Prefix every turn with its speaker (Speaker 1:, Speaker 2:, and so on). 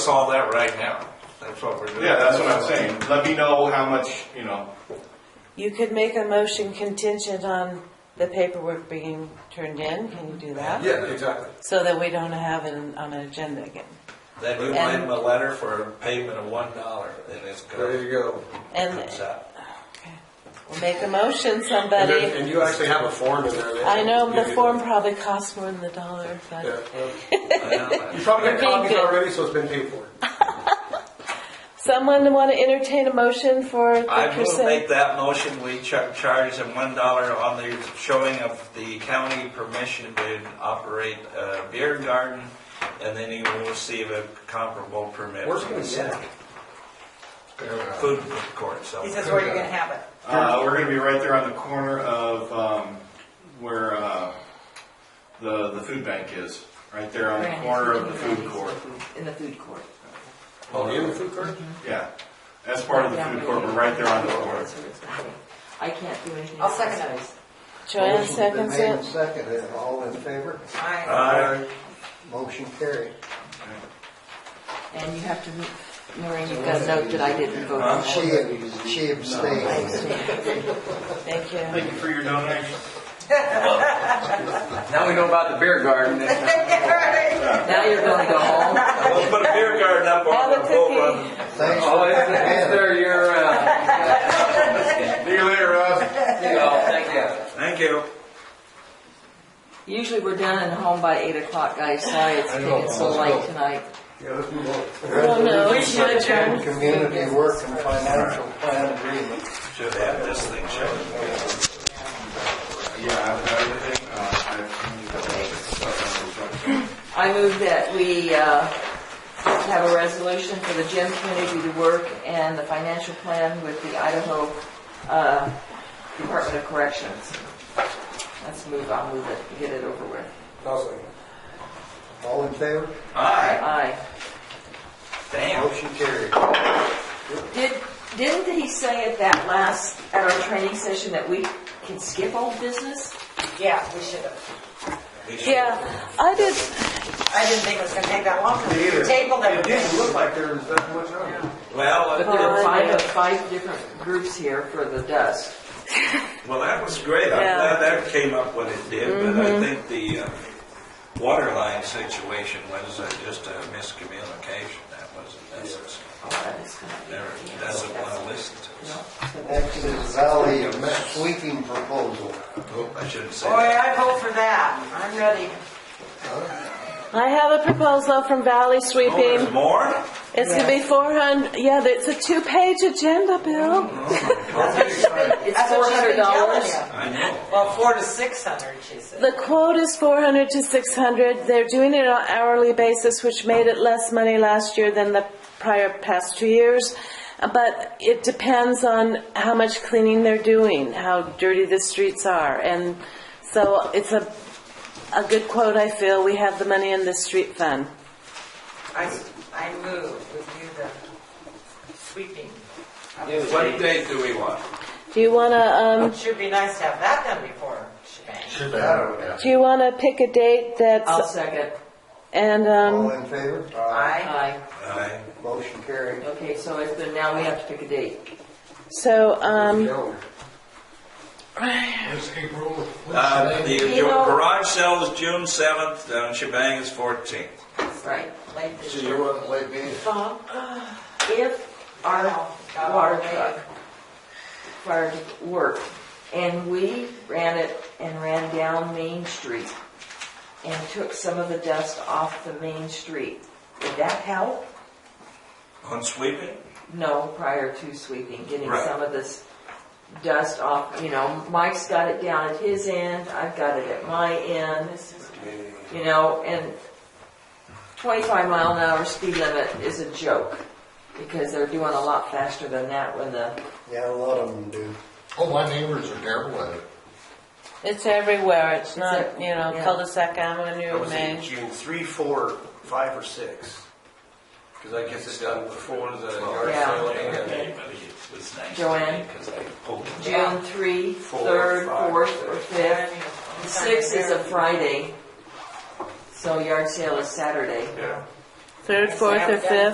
Speaker 1: solve that right now. That's what we're doing.
Speaker 2: Yeah, that's what I'm saying. Let me know how much, you know,
Speaker 3: You could make a motion contingent on the paperwork being turned in, can you do that?
Speaker 4: Yeah, exactly.
Speaker 3: So that we don't have it on an agenda again.
Speaker 1: Then you write them a letter for a payment of one dollar and it's
Speaker 4: There
Speaker 1: good.
Speaker 4: you go.
Speaker 3: And,
Speaker 1: Comes out.
Speaker 3: okay, well, make a motion,
Speaker 4: And
Speaker 3: somebody.
Speaker 4: then- and you actually have a form in there. that-
Speaker 3: I know the form probably costs more than a dollar,
Speaker 4: Yeah.
Speaker 3: but,
Speaker 1: I
Speaker 4: You
Speaker 1: know.
Speaker 4: probably
Speaker 3: We're
Speaker 4: got
Speaker 3: being
Speaker 4: copies
Speaker 3: good.
Speaker 4: already, so it's been paid for.
Speaker 3: someone want to entertain a motion for the
Speaker 1: I will make
Speaker 3: percent?
Speaker 1: that motion, we cha- charge them one dollar on the showing of the county permission to operate a beer garden, and then you will receive a comparable permit.
Speaker 4: Where's it
Speaker 1: from
Speaker 4: gonna
Speaker 1: the
Speaker 4: sit?
Speaker 1: city. Food court, so.
Speaker 5: He says where you're gonna have it.
Speaker 2: uh, we're gonna be right there on the corner of, um, where, uh, the, the food bank is. Right there on the corner of the food court.
Speaker 5: In the food court.
Speaker 4: Oh, in the food court?
Speaker 2: Yeah. That's part of the food court. We're right there on the corner.
Speaker 5: I can't do anything. I'll second that.
Speaker 3: Joanne seconds
Speaker 6: Motion's been made and
Speaker 3: it.
Speaker 6: seconded, all in favor?
Speaker 5: Aye.
Speaker 1: Aye.
Speaker 6: Motion carried.
Speaker 5: And you have to, Noreen, you've got to note that I didn't vote on
Speaker 6: She,
Speaker 5: that.
Speaker 6: she abstained.
Speaker 3: Thank you.
Speaker 2: Thank you for your donation.
Speaker 7: Now we know about the beer garden.
Speaker 5: Now you're gonna go home.
Speaker 1: We'll put a beer garden up on
Speaker 3: Have a
Speaker 1: the
Speaker 3: cookie.
Speaker 1: boat.
Speaker 6: Thanks
Speaker 7: Oh,
Speaker 6: for
Speaker 7: is, is there your, uh,
Speaker 2: See you later, Russ.
Speaker 7: oh, thank you.
Speaker 1: Thank you.
Speaker 5: Usually we're done and home by eight o'clock, guys. Sorry, it's getting so late tonight.
Speaker 3: Oh, no, it's your turn.
Speaker 6: the community work and financial plan agreement.
Speaker 1: Should have this thing shown.
Speaker 2: Yeah, I've got everything. Uh,
Speaker 5: I move that we uh, have a resolution for the gym community to work and the financial plan with the Idaho uh, Department of Corrections. Let's move, I'll move it, get it over with.
Speaker 6: All in favor?
Speaker 1: Aye,
Speaker 5: Aye.
Speaker 1: damn.
Speaker 6: Motion carried.
Speaker 5: Did, didn't he say at that last, at our training session that we can skip old business?
Speaker 8: Yeah, we should have.
Speaker 1: We should-
Speaker 3: Yeah, I did,
Speaker 8: I didn't think it was gonna take that long for you to table
Speaker 4: It didn't
Speaker 8: everything.
Speaker 4: look like there was that much on it.
Speaker 1: Well,
Speaker 5: But there are five, five different groups here for the dust.
Speaker 1: Well, that was great. I'm
Speaker 3: Yeah.
Speaker 1: glad that came up when it did, but I think the uh, water line situation was uh, just a miscommunication. That wasn't necessary.
Speaker 5: Oh, that is kind of-
Speaker 1: Never doesn't want to listen to us.
Speaker 6: Next is Valley sweeping proposal.
Speaker 1: Oh, I shouldn't say
Speaker 8: Boy,
Speaker 1: that.
Speaker 8: I vote for that. I'm ready.
Speaker 3: I have a proposal from Valley
Speaker 1: Oh, there's
Speaker 3: Sweeping.
Speaker 1: more?
Speaker 3: It's gonna be four hundred, yeah, it's a two-page agenda, Bill.
Speaker 5: It's
Speaker 8: That's
Speaker 5: four
Speaker 8: what she's
Speaker 5: hundred
Speaker 8: been telling
Speaker 5: dollars.
Speaker 8: you.
Speaker 1: I know.
Speaker 8: Well, four to six hundred, she said.
Speaker 3: The quote is 400 to 600. They're doing it on hourly basis, which made it less money last year than the prior past two years. Uh, But it depends on how much cleaning they're doing, how dirty the streets are. And so it's a, a good quote, I feel. We have the money in the street fund.
Speaker 8: I, s- I move, we do the sweeping. of the
Speaker 1: What
Speaker 8: streets.
Speaker 1: date do we want?
Speaker 3: Do you wanna, um,
Speaker 8: Should be nice to have that done before shebang.
Speaker 3: do you wanna pick a date
Speaker 5: I'll
Speaker 3: that's,
Speaker 5: second.
Speaker 3: and,
Speaker 6: All
Speaker 3: um,
Speaker 6: in favor?
Speaker 8: Aye.
Speaker 5: Aye.
Speaker 1: Aye.
Speaker 6: Motion carried.
Speaker 5: Okay, so it's been, now we have to pick a date.
Speaker 3: so, um,
Speaker 6: Calendar.
Speaker 1: Uh, The
Speaker 5: You know-
Speaker 1: garage sale is June 7th, and shebang is 14th.
Speaker 5: Right.
Speaker 8: Late this Uh,
Speaker 6: See,
Speaker 8: year.
Speaker 6: you wasn't late meeting.
Speaker 5: Bob, if our water truck prior to work, and we ran it and ran down Main Street and took some of the dust off the Main Street, would that help?
Speaker 1: On sweeping?
Speaker 5: No, prior to sweeping, getting
Speaker 1: Right.
Speaker 5: some of this dust off, you know, Mike's got it down at his end, I've got it at my end, you know, and twenty-five mile an hour speed limit is a joke, because they're doing a lot faster than that when the
Speaker 6: Yeah, a lot of them do.
Speaker 9: Oh, my neighbors are terrible at it.
Speaker 3: it's everywhere. It's not, you know,
Speaker 5: Yeah.
Speaker 3: cul-de-sac avenue, Main.
Speaker 4: June three, four, five, or six.
Speaker 7: Because I guess it's done before the yard
Speaker 5: Yeah.
Speaker 7: sale. and-
Speaker 5: Joanne, June three, third, fourth, or fifth. The sixth is a Friday, so yard sale is Saturday.
Speaker 3: Third, fourth, or fifth?